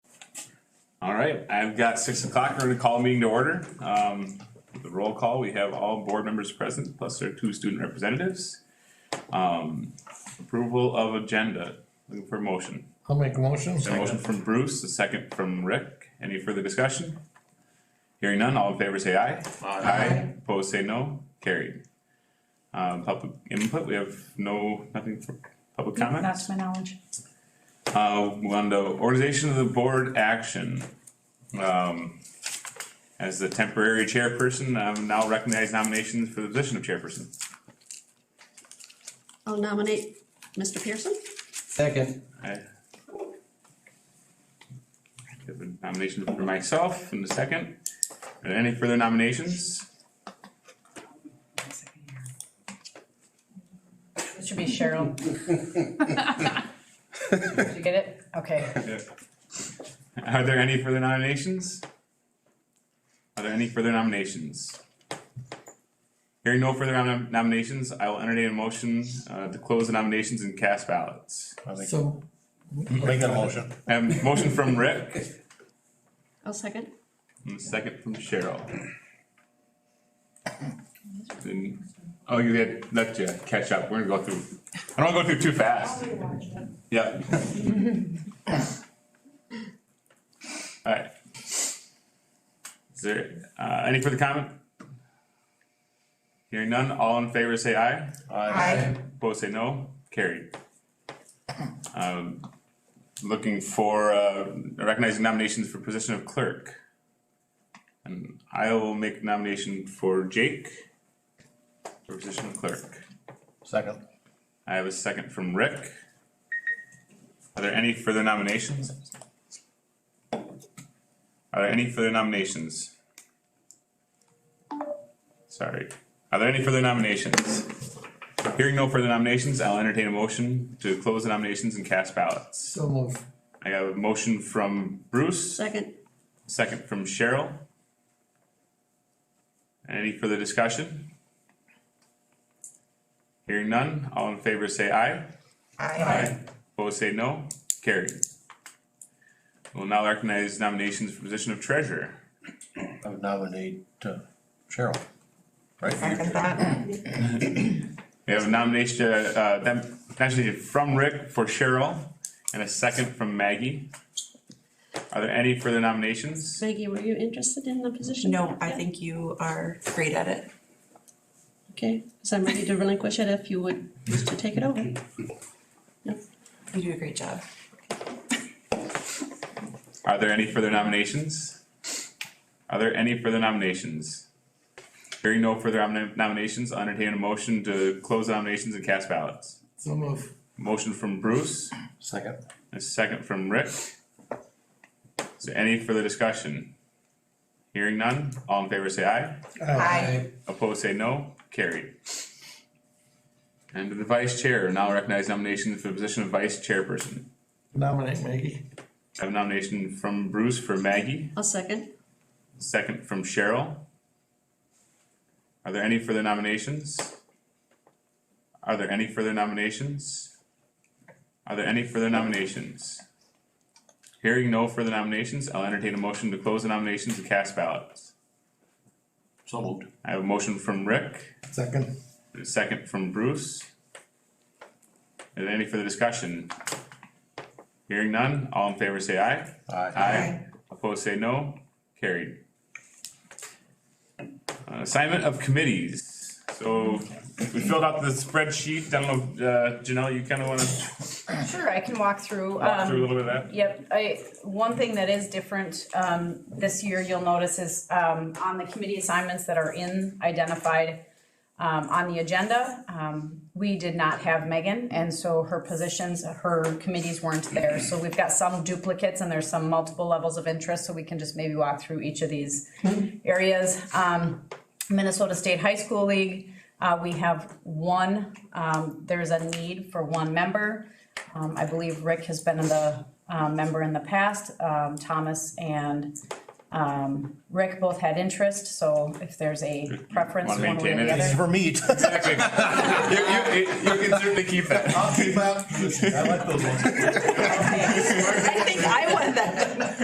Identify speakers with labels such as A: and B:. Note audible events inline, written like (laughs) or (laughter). A: All right, I've got six o'clock, we're gonna call a meeting to order. Um, the roll call, we have all board members present, plus their two student representatives. Um, approval of agenda, looking for a motion.
B: I'll make a motion.
A: A motion from Bruce, a second from Rick, any further discussion? Hearing none, all in favor say aye. Aye. Opposed say no, carried. Um, public input, we have no, nothing for public comment?
C: Not to my knowledge.
A: Uh, move on to organization of the board action. Um, as the temporary chairperson, I'm now recognize nominations for the position of chairperson.
D: I'll nominate Mr. Pearson.
B: Second.
A: I Have a nomination for myself in a second. Are there any further nominations?
E: It should be Cheryl. Did you get it? Okay.
A: Are there any further nominations? Are there any further nominations? Hearing no further nom- nominations, I will entertain a motion uh, to close the nominations and cast ballots.
B: So,
F: Make that motion.
A: I have a motion from Rick
D: I'll second.
A: and a second from Cheryl. And- oh, you had let you catch up. We're gonna go through. I don't wanna go through too fast. Yep. All right. Is there uh, any further comment? Hearing none. All in favor, say aye.
E: Aye.
A: Opposed, say no. Carried. Um, looking for, uh, recognizing nominations for position of clerk. And I will make nomination for Jake for position of clerk.
F: Second.
A: I have a second from Rick. Are there any further nominations? Are there any further nominations? Sorry. Are there any further nominations? Hearing no further nominations, I'll entertain a motion to close the nominations and cast ballots.
B: so move.
A: I have a motion from Bruce,
D: Second.
A: second from Cheryl. Any further discussion? Hearing none, all in favor say aye.
E: Aye.
A: Opposed say no, carried. We'll now recognize nominations for position of treasurer.
F: I would nominate uh, Cheryl. Right?
A: We have a nomination, uh, them- actually from Rick for Cheryl and a second from Maggie. Are there any further nominations?
D: Maggie, were you interested in the position?
C: No, I
D: Yeah.
C: think you are great at it.
D: Okay, so I'm ready to relinquish it if you would wish to take it over.
C: You do a great job.
A: Are there any further nominations? Are there any further nominations? Hearing no further nom- nominations, I'll entertain a motion to close nominations and cast ballots.
B: So move.
A: Motion from Bruce.
F: Second.
A: A second from Rick. Is there any further discussion? Hearing none, all in favor say aye,
E: Aye.
A: opposed say no, carried. And to the vice chair, now recognize nomination for the position of vice chairperson.
B: Nominate Maggie.
A: I have a nomination from Bruce for Maggie,
D: I'll second.
A: second from Cheryl. Are there any further nominations? Are there any further nominations? Are there any further nominations? Hearing no further nominations, I'll entertain a motion to close the nominations and cast ballots.
F: So moved.
A: I have a motion from Rick,
B: Second.
A: and a second from Bruce. Is there any further discussion? Hearing none, all in favor say aye.
F: Aye.
A: Aye. Opposed say no, carried. Uh, Assignment of committees, so we filled out the spreadsheet, I don't know, uh, Janelle, you kinda wanna
E: Sure, I can walk through.
A: walk through a
E: Um,
A: little bit of that?
E: Yep, I, one thing that is different, um, this year you'll notice is, um, on the committee assignments that are in identified, um, on the agenda, um, we did not have Megan, and so her positions, her committees weren't there. So we've got some duplicates and there's some multiple levels of interest, so we can just maybe walk through each of these areas. Um, Minnesota State High School League, uh, we have one, um, there's a need for one member. Um, I believe Rick has been the, um, member in the past, um, Thomas and, um, Rick both had interest, so if there's a preference
A: Wanna
E: one way or
A: maintain
E: the
A: it?
E: other.
F: It's for (laughs) meat.
A: Exactly. You, you, you can certainly keep that.
F: I like those ones.
E: I think I won that